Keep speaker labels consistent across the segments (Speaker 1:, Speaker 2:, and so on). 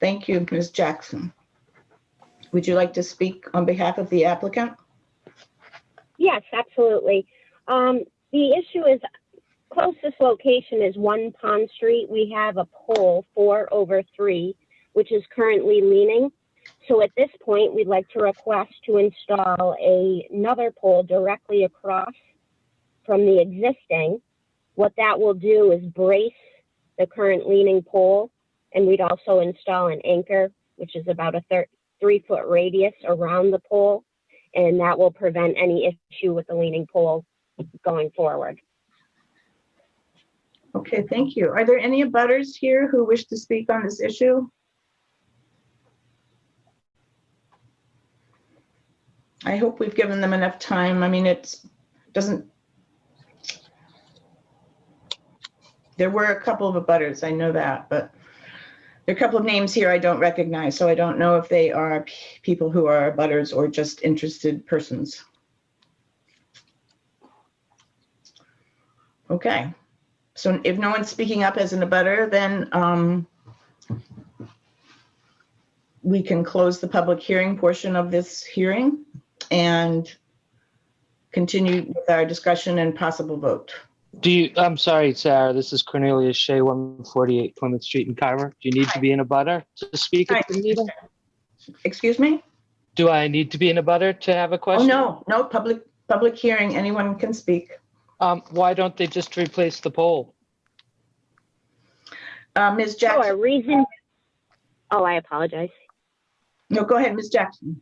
Speaker 1: Thank you, Ms. Jackson. Would you like to speak on behalf of the applicant?
Speaker 2: Yes, absolutely. Um, the issue is closest location is one Pond Street. We have a pole four over three, which is currently leaning. So at this point, we'd like to request to install a, another pole directly across from the existing. What that will do is brace the current leaning pole, and we'd also install an anchor, which is about a thir- three foot radius around the pole and that will prevent any issue with the leaning pole going forward.
Speaker 1: Okay, thank you. Are there any abutters here who wish to speak on this issue? I hope we've given them enough time. I mean, it's, doesn't. There were a couple of abutters, I know that, but there are a couple of names here I don't recognize, so I don't know if they are p- people who are abutters or just interested persons. Okay. So if no one's speaking up as an abutter, then um, we can close the public hearing portion of this hearing and continue with our discussion and possible vote.
Speaker 3: Do you, I'm sorry, Sarah, this is Cornelius Shea, 148 Plymouth Street in Carver. Do you need to be in a butter to speak
Speaker 1: Hi.
Speaker 3: at the meeting?
Speaker 1: Excuse me?
Speaker 3: Do I need to be in a butter to have a
Speaker 1: Oh,
Speaker 3: question?
Speaker 1: no, no, public, public hearing, anyone can speak.
Speaker 3: Um, why don't they just replace the poll?
Speaker 1: Uh, Ms.
Speaker 2: So a
Speaker 1: Jackson,
Speaker 2: reason, oh, I apologize.
Speaker 1: no, go ahead, Ms. Jackson.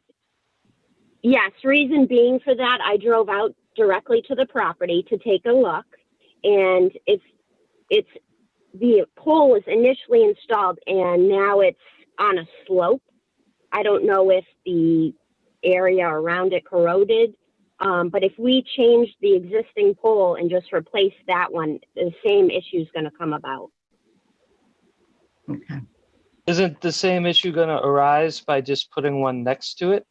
Speaker 2: Yes, reason being for that, I drove out directly to the property to take a look, and it's it's the pole was initially installed and now it's on a slope. I don't know if the area around it corroded, um, but if we change the existing pole and just replace that one, the same issue is going to come about.
Speaker 1: Okay.
Speaker 3: Isn't the same issue going to arise by just putting one next to it?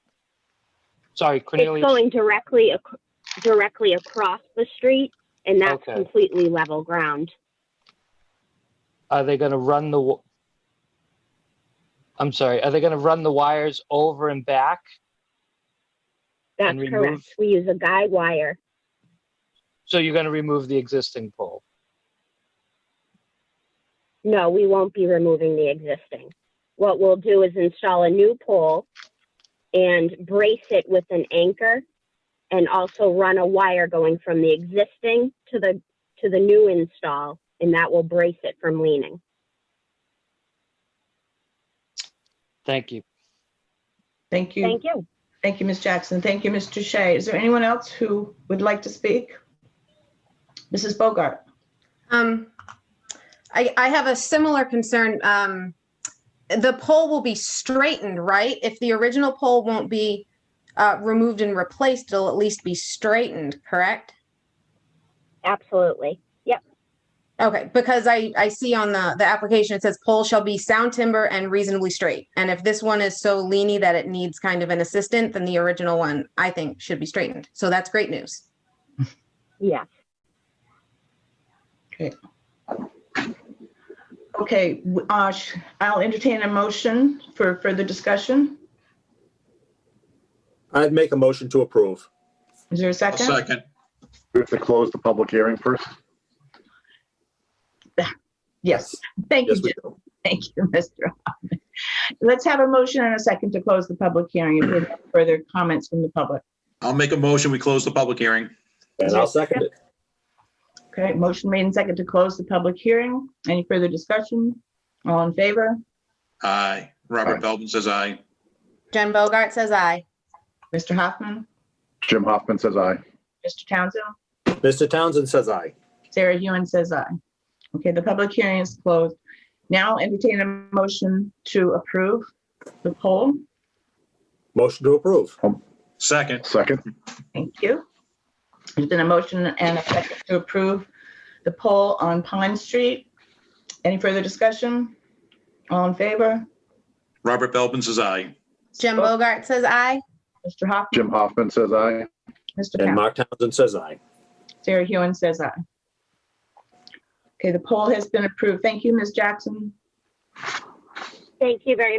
Speaker 3: Sorry,
Speaker 2: It's
Speaker 3: Cornelius.
Speaker 2: going directly ac- directly across the street, and that's
Speaker 3: Okay.
Speaker 2: completely level ground.
Speaker 3: Are they going to run the? wa- I'm sorry. Are they going to run the wires over and back?
Speaker 2: That's
Speaker 3: and remove-
Speaker 2: correct. We use a guide wire.
Speaker 3: So you're going to remove the existing poll.
Speaker 2: No, we won't be removing the existing. What we'll do is install a new pole and brace it with an anchor and also run a wire going from the existing to the to the new install and that will brace it from leaning.
Speaker 3: Thank you.
Speaker 1: Thank you.
Speaker 2: Thank you.
Speaker 1: Thank you, Ms. Jackson. Thank you, Mr. Shea. Is there anyone else who would like to speak? Mrs. Bogart?
Speaker 4: Um, I, I have a similar concern. Um, the pole will be straightened, right? If the original pole won't be uh, removed and replaced, it'll at least be straightened, correct?
Speaker 2: Absolutely.
Speaker 4: Okay, because I, I see on the, the application, it says pole shall be sound timber and reasonably straight. And if this one is so leany that it needs kind of an assistant, then the original one, I think, should be straightened. So that's great news.
Speaker 2: Yeah.
Speaker 1: Okay, w- uh, sh- I'll entertain a motion for further discussion.
Speaker 5: I'd make a motion to approve.
Speaker 1: Is there a
Speaker 6: I'll
Speaker 1: second?
Speaker 6: second.
Speaker 7: We have to close the public hearing first.
Speaker 1: Yes, thank you,
Speaker 5: Yes, we
Speaker 1: Jim.
Speaker 5: do.
Speaker 1: thank you, Mr. Hoffman. Let's have a motion and a second to close the public hearing. If there are no further comments from the public.
Speaker 6: I'll make a motion. We close the public hearing.
Speaker 5: And I'll second it.
Speaker 1: Okay, motion made and second to close the public hearing. Any further discussion? All in favor?
Speaker 6: Aye. Robert Belvin says aye.
Speaker 4: Jen Bogart says aye.
Speaker 1: Mr. Hoffman,
Speaker 7: Jim Hoffman says aye.
Speaker 1: Mr. Townsend?
Speaker 5: Mr. Townsend says aye.
Speaker 1: Sarah Hewen says aye. Okay, the public hearing is closed. Now entertain a motion to approve the poll.
Speaker 5: Motion to approve.
Speaker 6: Second.
Speaker 7: Second,
Speaker 1: Thank you. There's been a motion and a second to approve the poll on Pine Street. Any further discussion? All in favor?
Speaker 6: Robert Belvin says aye.
Speaker 4: Jen Bogart says aye.
Speaker 1: Mr. Hoffman?
Speaker 7: Jim Hoffman says
Speaker 1: Mr.
Speaker 7: aye.
Speaker 5: And
Speaker 1: Townsend?
Speaker 5: Mark Townsend says aye.
Speaker 1: Sarah Hewen says aye. Okay, the poll has been approved. Thank you, Ms. Jackson.
Speaker 2: Thank you very